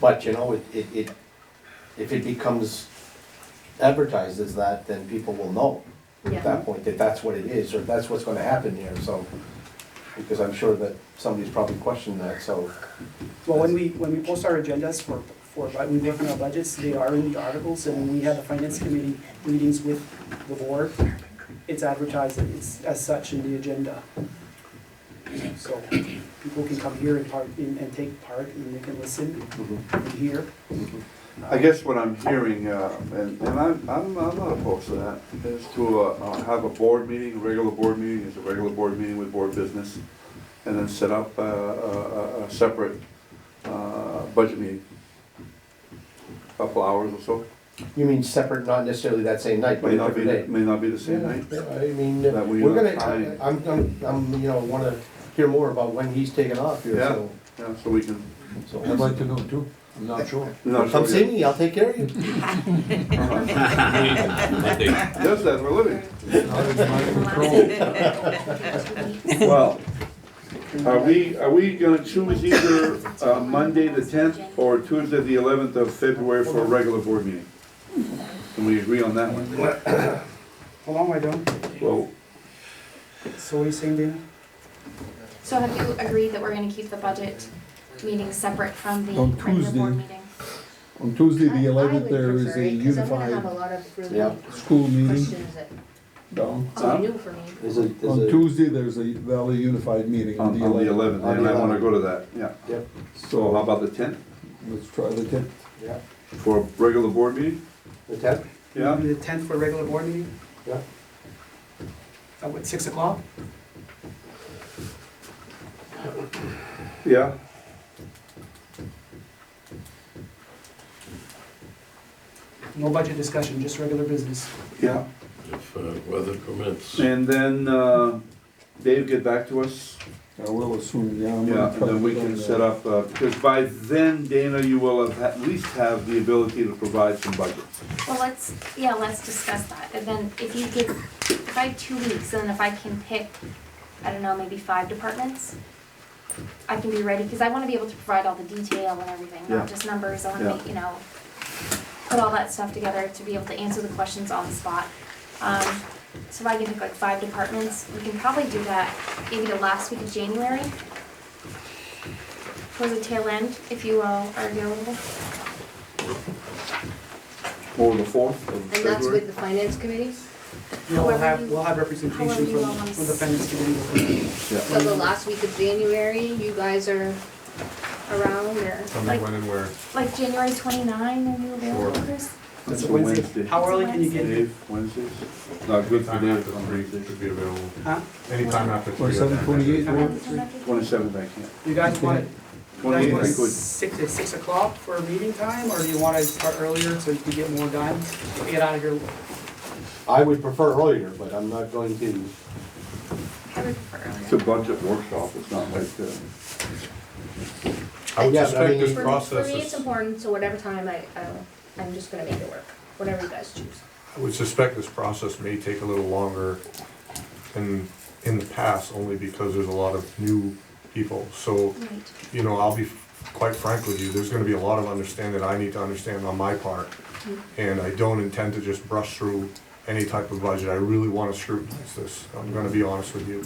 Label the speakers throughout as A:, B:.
A: But, you know, it, it, it, if it becomes advertised as that, then people will know
B: Yeah.
A: at that point that that's what it is, or that's what's gonna happen here, so. Because I'm sure that somebody's probably questioned that, so,
C: Well, when we, when we post our agendas for, for, bu- we work on our budgets, they are in the articles, and when we have the finance committee meetings with the board, it's advertised, and it's as such in the agenda. So people can come here and part, and and take part, and they can listen
D: Mm-hmm.
C: and hear.
D: I guess what I'm hearing, uh, and, and I'm, I'm, I'm not opposed to that, is to, uh, uh, have a board meeting, a regular board meeting, is a regular board meeting with board business, and then set up, uh, a, a, a separate, uh, budget meeting. Couple hours or so,
A: you mean separate, not necessarily that same night, but
D: may
A: a
D: not be,
A: different day?
D: may not be the same
A: Yeah,
D: night.
A: I mean, uh,
D: That we
A: we're
D: don't
A: gonna,
D: find-
A: I'm, I'm, I'm, you know, wanna hear more about when he's taking off here,
D: Yeah.
A: so.
D: Yeah, so we can,
A: so
E: I'd like to know too, I'm not sure.
D: no, so
A: Come see
D: we
A: me, I'll take care of you.
D: does that for a living.
E: Out of my control.
D: Well, are we, are we gonna choose either, uh, Monday the tenth or Tuesday the eleventh of February for a regular board meeting? Can we agree on that one?
C: How long am I done?
D: Well,
C: So what are you saying, Dana?
B: So have you agreed that we're gonna keep the budget meeting separate from the
E: On
B: regular
E: Tuesday.
B: board meeting?
E: On Tuesday,
F: I- I
E: the eleventh,
F: would
E: there is
F: prefer
E: a
F: it, 'cause I'm gonna have a
E: unified
F: lot of really
A: Yeah.
E: school meeting.
F: questions that
E: down.
F: are new for me.
A: There's a, there's
E: On
A: a,
E: Tuesday, there's a Valley Unified meeting on
D: on,
E: the
D: on the
E: eleventh.
D: eleventh,
A: On the
D: and I wanna
A: 11th.
D: go to that, yeah.
A: yep,
D: So how about the tenth,
E: Let's try the tenth.
A: yeah,
D: for a regular board meeting?
A: the tenth,
D: Yeah,
C: Maybe The tenth for a regular board meeting,
A: yeah.
C: at what, six o'clock?
D: yeah,
C: No budget discussion, just regular business.
D: yeah.
G: If uh, weather permits.
D: And then, uh, Dave, get back to us,
E: I will assume, yeah. I'm gonna
D: yeah, and
E: try
D: then
E: to
D: we
E: get on
D: can
E: that.
D: set up, uh, because by then, Dana, you will have, at least have the ability to provide some budget.
B: Well, let's, yeah, let's discuss that, and then if you give, if I have two weeks, and if I can pick, I don't know, maybe five departments, I can be ready, because I wanna be able to provide all the detail and everything,
D: Yeah.
B: not just numbers, I wanna
D: Yeah.
B: be, you know, put all that stuff together to be able to answer the questions on the spot. Um, so if I can pick like five departments, we can probably do that maybe the last week of January. Towards the tail end, if you all are available.
D: Or the fourth of
F: And that's
D: February?
F: with the finance committee?
C: We'll
B: However
C: have,
B: you-
C: we'll have
B: however
C: representation
B: you
C: from,
B: all want.
C: from the finance committee.
F: So
E: Mm-hmm.
F: the last week of January, you guys are around or?
B: Like when and where? Like January twenty-nine, are you available, Chris?
D: That's
C: So
D: a
C: Wednesday.
D: Wednesday.
C: How early can you get?
D: Dave, Wednesdays? Not good for
H: Anytime
D: Dave,
H: after three, they should be available.
C: Huh?
H: Anytime after three.
E: Or seven twenty-eight,
B: Around
E: or
B: the time after-
D: Twenty-seventh, I can't.
C: You guys want, it- you guys
D: Twenty-eighth,
C: want
D: I
C: it
D: could.
C: six, at six o'clock for meeting time, or do you wanna start earlier so you can get more done? Get out of here,
A: I would prefer earlier, but I'm not going to,
B: I would prefer
D: It's a
B: earlier.
D: budget workshop, it's not like, uh,
H: I would
A: Yeah, but I
H: suspect
A: mean-
H: this
F: For-
H: process
F: For me, it's
H: is,
F: important, so whatever time I, I'll- I'm just gonna make it work, whatever you guys choose.
H: I would suspect this process may take a little longer than in the past, only because there's a lot of new people. So,
B: Right.
H: you know, I'll be quite frank with you, there's gonna be a lot of understanding I need to understand on my part. And I don't intend to just brush through any type of budget, I really wanna scrutinize this, I'm gonna be honest with you.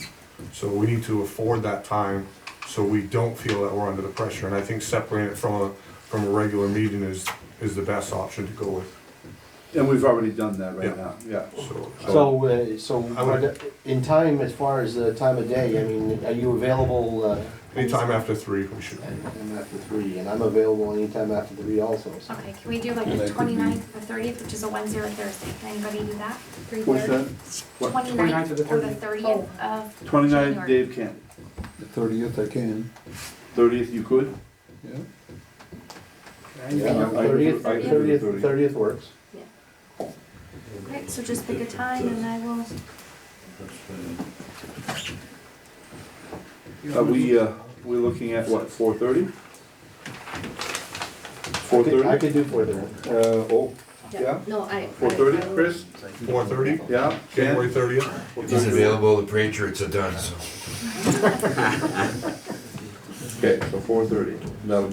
H: So we need to afford that time, so we don't feel that we're under the pressure, and I think separating it from a, from a regular meeting is, is the best option to go with,
D: and we've already done that right
H: Yeah.
D: now, yeah.
H: so.
A: so, uh, so
H: I would-
A: in time, as far as the time of day, I mean, are you available? uh,
H: Anytime after three, we should,
A: And and after three, and I'm available anytime after three also, so.
B: Okay, can we do like
E: Yeah, that
B: the
E: could be-
B: twenty-ninth or thirtieth, which is a Wednesday or Thursday? Can anybody do that?
F: Three
D: What's that?
F: thirty?
D: What?
C: 29th or the
B: Twenty-ninth or the thirtieth of
D: Twenty-nine,
B: January.
D: Dave can't.
E: the thirtieth I can,
D: Thirtieth, you could?
E: yeah.
C: right?
A: Yeah,
D: I- I-
A: thirtieth,
D: I-
A: thirtieth, thirtieth works.
B: Okay, so just pick a time and I will,
D: Are we, uh, we looking at what, four thirty? Four
A: I could- I
D: thirty?
A: could do four thirty.
D: Uh, oh, yeah,
F: No, I. I-
D: four thirty, Chris?
H: four thirty,
D: Yeah,
H: January
D: Jan?
H: thirtieth,
I: He's available, the Patriots are done, so.
D: Okay, so four thirty, that'll